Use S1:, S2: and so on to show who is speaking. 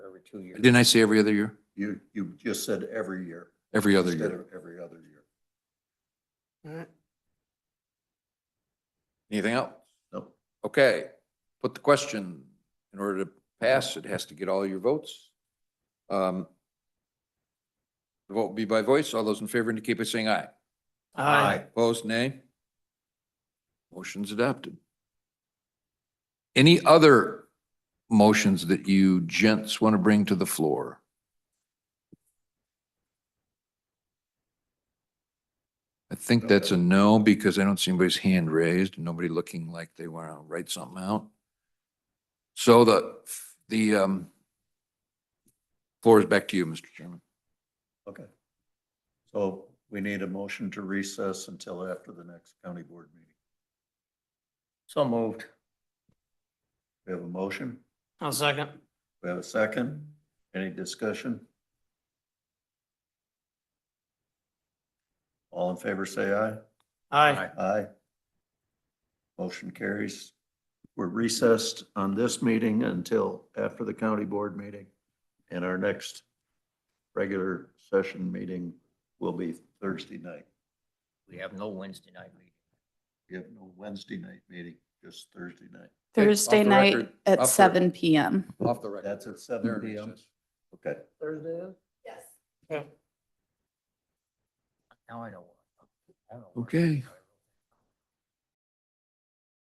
S1: every two years.
S2: Didn't I say every other year?
S1: You, you just said every year.
S2: Every other
S1: instead
S2: year.
S1: of Every other year.
S2: Anything else?
S1: No,
S2: Okay, put the question, in order to pass, it has to get all your votes. Um, The vote will be by voice. All those in favor indicate by saying aye.
S1: Aye.
S2: Opposed, nay? Motion's adopted. Any other motions that you gents want to bring to the floor? I think that's a no because I don't see anybody's hand raised, nobody looking like they want to write something out. So the, the um, floor is back to you, Mr. Chairman.
S1: okay. So we need a motion to recess until after the next county board meeting.
S3: So moved.
S1: We have a motion,
S3: I'll second.
S1: we have a second, any discussion? All in favor, say aye.
S3: Aye.
S1: Aye. Motion carries. We're recessed on this meeting until after the county board meeting. And our next regular session meeting will be Thursday night.
S3: We have no Wednesday night meeting.
S1: We have no Wednesday night meeting, just Thursday night.
S2: Okay, off
S4: Thursday
S2: the
S4: night
S2: record, off
S4: at
S2: the-
S4: seven PM.
S2: Off the record.
S1: That's at
S2: There
S1: seven
S2: it
S1: PM.
S2: is.
S1: Okay.
S3: Thursday is?
S4: Yes.
S3: Now I know. what- I know what-
S2: Okay,